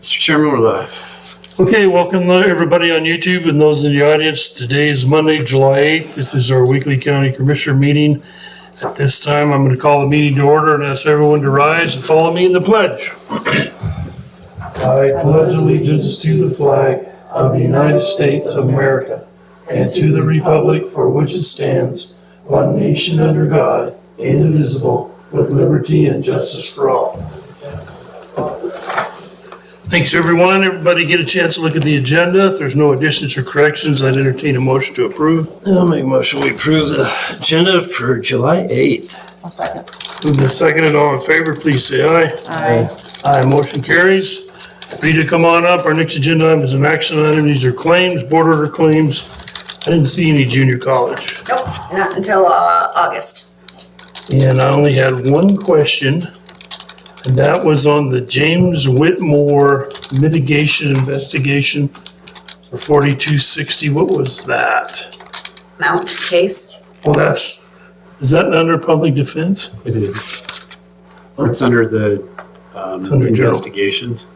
Mr. Chairman, we're live. Okay, welcome uh, everybody on YouTube and those in the audience. Today is Monday, July 8th. This is our weekly county commissioner meeting. At this time, I'm going to call the meeting to order and ask everyone to rise and follow me in the pledge. I pledge allegiance to the flag of the United States of America and to the republic for which it stands, one nation under God, indivisible, with liberty and justice for all. Thanks, everyone. Everybody get a chance to look at the agenda. If there's no additions or corrections, I'd entertain a motion to approve. I'll make a motion, we approve the agenda for July 8th. I'll second. Moved and seconded, all in favor, please say aye. Aye. Aye, motion carries. Rita, come on up. Our next agenda item is an action item. These are claims, board order claims. I didn't see any junior college. Nope, not until, uh, August. And I only had one question, and that was on the James Whitmore mitigation investigation for 4260. What was that? Mount case, Well, that's, is that under public defense? It is. It's under the um, It's under general. investigations.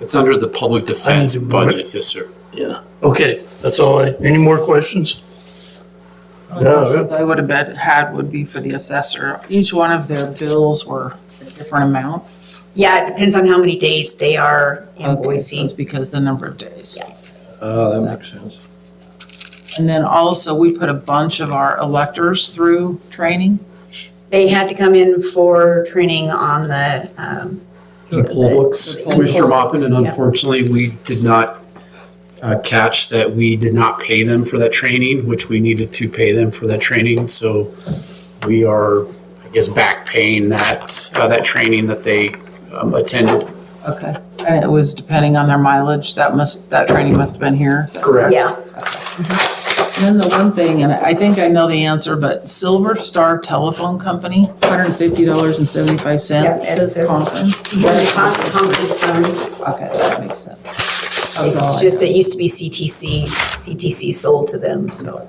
It's under the public defense I need to- budget, yes, sir. Yeah. Okay, that's all I, any more questions? Yeah, I would have bet had would be for the assessor. Each one of their bills were a different amount. yeah, it depends on how many days they are in Okay, so Boise. It's because the number of days. Yeah. Oh, that makes sense. And then also, we put a bunch of our electors through training. They had to come in for training on the, um, The poll books, the poll Commissioner books, Mopin, and yeah. unfortunately, we did not uh, catch that we did not pay them for that training, which we needed to pay them for that training. So we are, I guess, back paying that, uh, that training that they um, attended. Okay. And it was depending on their mileage, that must, that training must have been here. Is that- yeah, And Then the one thing, and I think I know the answer, but Silver Star Telephone Company, $150.75. Yeah, It says it's- conference. the con- conference funds. Okay, that makes sense. That was all It's I just, had. it used to be CTC, CTC sold to them, so.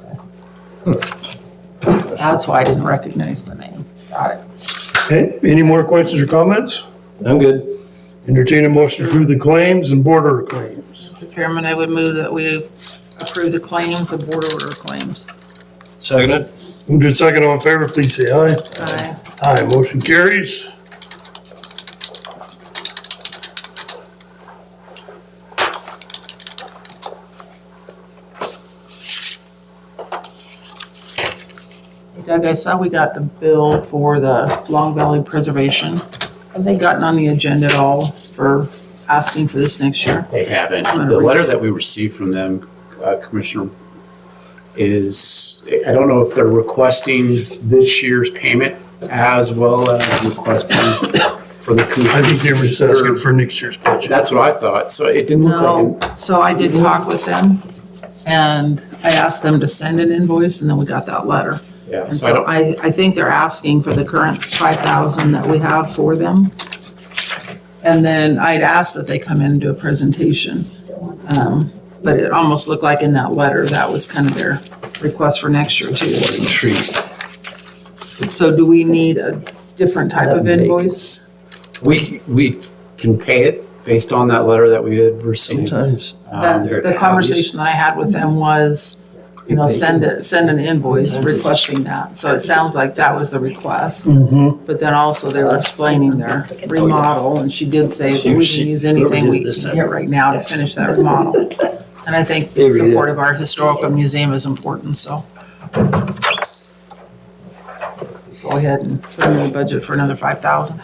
That's why I didn't recognize the name. Got it. okay, any more questions or comments? I'm good. Entertain a motion to approve the claims and board order claims. Mr. Chairman, I would move that we approve the claims, the board order claims. Seconded? Moved in second, all in favor, please say aye. Aye. Aye, motion carries. Doug, I saw we got the bill for the Long Valley Preservation. Have they gotten on the agenda at all for asking for this next year? They haven't. I'm gonna The read letter it. that we received from them, uh, Commissioner, is, I don't know if they're requesting this year's payment as well as requesting for the I think they commission. were just asking for next year's budget. That's what I thought, so it didn't look like. No, so I did talk with them and I asked them to send an invoice and then we got that letter. it. Yeah, And so I so don't, I, I think they're asking for the current five thousand that we have for them. And then I'd asked that they come in and do a presentation. Um, But it almost looked like in that letter, that was kind of their request for next year too. So do we need a different type of invoice? we, we can pay it based on that letter that we had received. Sometimes. Um, The the conversation that I had with them was, you know, send it, send an invoice requesting that. So it sounds like that was the request. Mm-hmm. But then also they were explaining their remodel, and she did say, we can use anything we can get right now to finish that remodel. And I think the support of our historical museum is important, so. Go ahead and put them in the budget for another five thousand.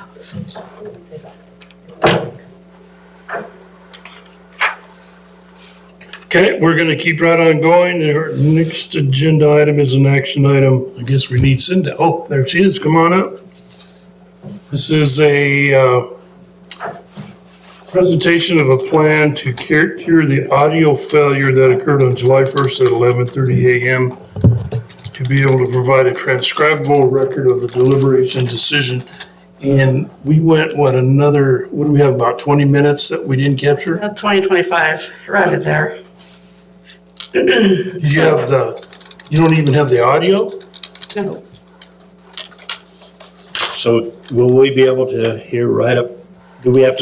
Okay, we're gonna keep right on going. Our next agenda item is an action item. I guess we need Cindy. Oh, there she is. Come on up. This is a, uh, presentation of a plan to cure, cure the audio failure that occurred on July first at eleven thirty AM to be able to provide a transcribable record of the deliberation decision. And we went, what, another, what do we have, about twenty minutes that we didn't capture? About 2025, around it there. You have the, you don't even have the audio? No, So will we be able to hear right up, do we have to